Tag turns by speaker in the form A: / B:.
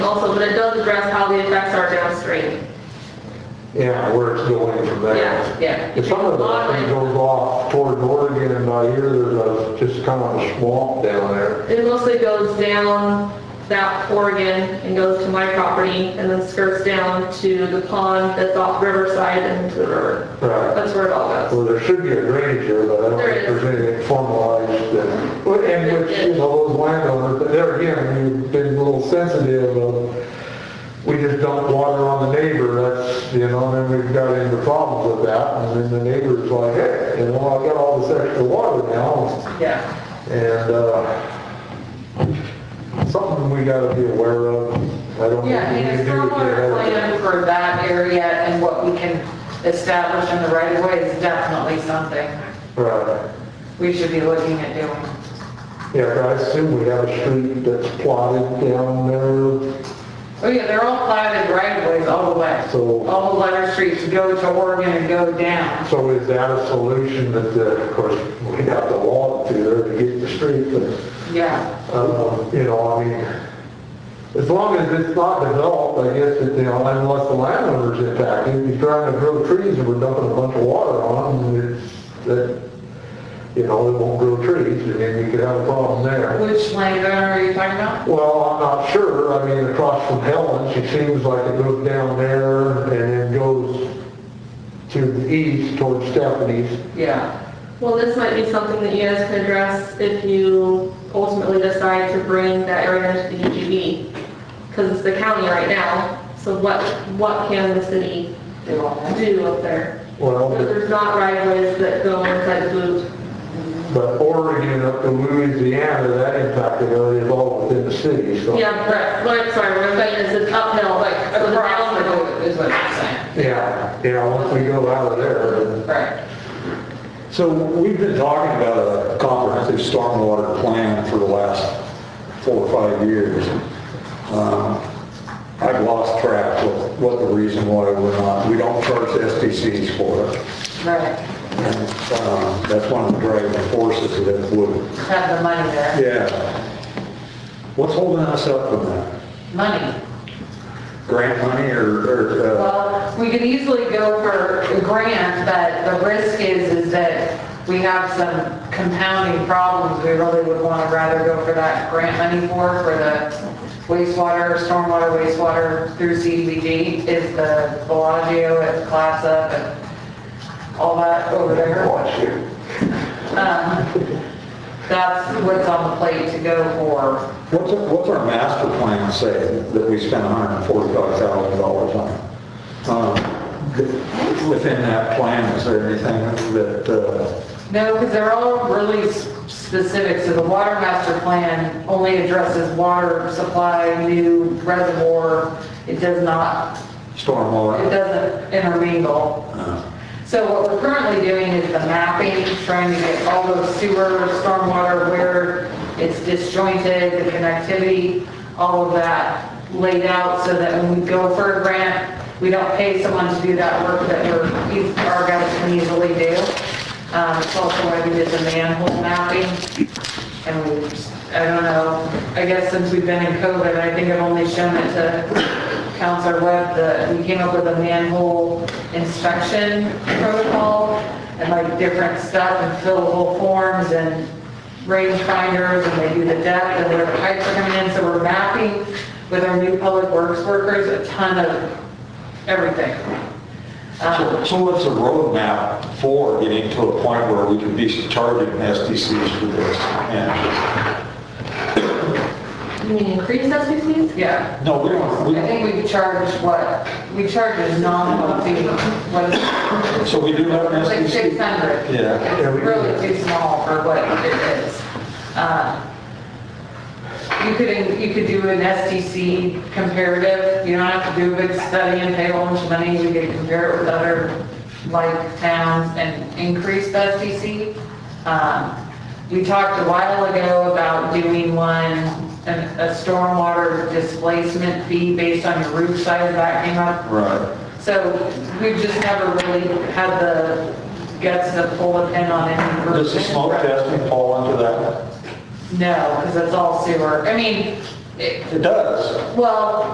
A: also, but it does address how the effects are downstream.
B: Yeah, where it's going from
A: Yeah,
B: there.
A: yeah.
B: And some of that thing goes off toward Oregon and I hear there's a, just kind of a swamp down there.
A: It mostly goes down that Oregon and goes to my property and then skirts down to the pond that's off Riverside and to the river.
B: Right.
A: That's where it all goes.
B: Well, there should be a drainage here, but I don't
A: There
B: think
A: is.
B: there's anything formalized that, well, and which, you know, those landowners, but there again, we've been a little sensitive of, we just dump water on the neighbor, that's, you know, and then we've got into problems with that, and then the neighbor's like, hey, you know, I got all this extra water now,
A: Yeah.
B: And, uh, something we gotta be aware of. I don't
C: Yeah,
B: think we
C: and
B: can
C: it's
B: do it
C: stormwater
B: there.
C: plan for that area and what we can establish in the right of way is definitely something
B: Right.
C: we should be looking at doing.
B: Yeah, but I assume we have a street that's plotted down there.
C: Oh yeah, they're all platted right of ways all the way.
B: So-
C: All the letter streets go to Oregon and go down.
B: So is that a solution that, uh, of course, we'd have to walk through there to get the street, but,
C: Yeah,
B: um, you know, I mean, as long as it's not developed, I guess, that, you know, unless the landowner's impacted, you're trying to grow trees and we're dumping a bunch of water on them, it's, that, you know, it won't grow trees, and then you could have a problem there.
C: which landowner are you talking about?
B: Well, I'm not sure, I mean, across from Helen, she seems like it goes down there and then goes to the east towards Stephanie's.
C: Yeah,
A: Well, this might be something that you guys can address if you ultimately decide to bring that area into the UGB. Because it's the county right now, so what, what can the city
C: they all have.
A: do up there?
B: Well,
A: Because
B: but-
A: There's not right of ways that go inside the loop.
B: but Oregon up to Louisiana, that impacted area is all within the city, so.
A: Yeah, correct. What I'm sorry, what I'm saying is it's uphill,
C: Like
A: like, so the
C: across the
A: downhill.
C: road is what you're saying.
B: Yeah, yeah, once we go out of there, then-
C: Right.
D: So we've been talking about a comprehensive stormwater plan for the last four or five years. Um, I've lost track of what the reason why we're not, we don't charge SDCs for it.
C: Right,
D: And, um, That's one of the driving forces of it would,
C: have the money there.
D: yeah. What's holding us up from that?
C: Money.
D: Grant money or, or, uh,
C: Well, we could easily go for a grant, but the risk is, is that we have some compounding problems. We really would want to rather go for that grant money for, for the wastewater, stormwater wastewater through CDBG is the Bellagio, it's class up and all that over there. Um, That's what's on the plate to go for.
D: what's, what's our master plan say that we spent $145,000 on? Um, th- Within that plan, is there anything that, uh,
C: No, because they're all really s- specific, so the water master plan only addresses water supply, new reservoir, it does not, it
D: stormwater?
C: doesn't intermingle.
D: Uh,
C: So what we're currently doing is the mapping, trying to get all those sewer, stormwater, where it's disjointed, the connectivity, all of that laid out so that when we go for a grant, we don't pay someone to do that work that we're, our guys can easily do. Um, It's also why we did the manhole mapping. And we, I don't know, I guess since we've been in COVID, I think I've only shown it to Counselor Webb, that we came up with a manhole inspection protocol and like different stuff and fillable forms and range finders and they do the depth and where the pipes are coming in. So we're mapping with our new public works workers a ton of everything. Um,
D: So so what's the roadmap for getting to a point where we can be charging SDCs for this? And,
A: You mean increase SPCs?
C: Yeah.
D: no, we don't,
C: I
D: we,
C: think we charge what, we charge a nominal fee, what is it?
D: so we do have an
C: Like
D: SDC?
C: 600.
D: Yeah.
B: Yeah, we
C: It's
B: do
C: really
B: that.
C: too small for what it is. Uh, You could, you could do an STC comparative, you don't have to do a big study and pay a bunch of money, you could compare it with other like towns and increase the STC. Um, We talked a while ago about doing one, an- a stormwater displacement fee based on your roof size, that came up
D: Right.
C: so we've just never really had the guts to pull a pin on any. group.
D: Does the smoke testing fall into that?
C: No, because it's all sewer. I mean, it-
D: It does.
C: well,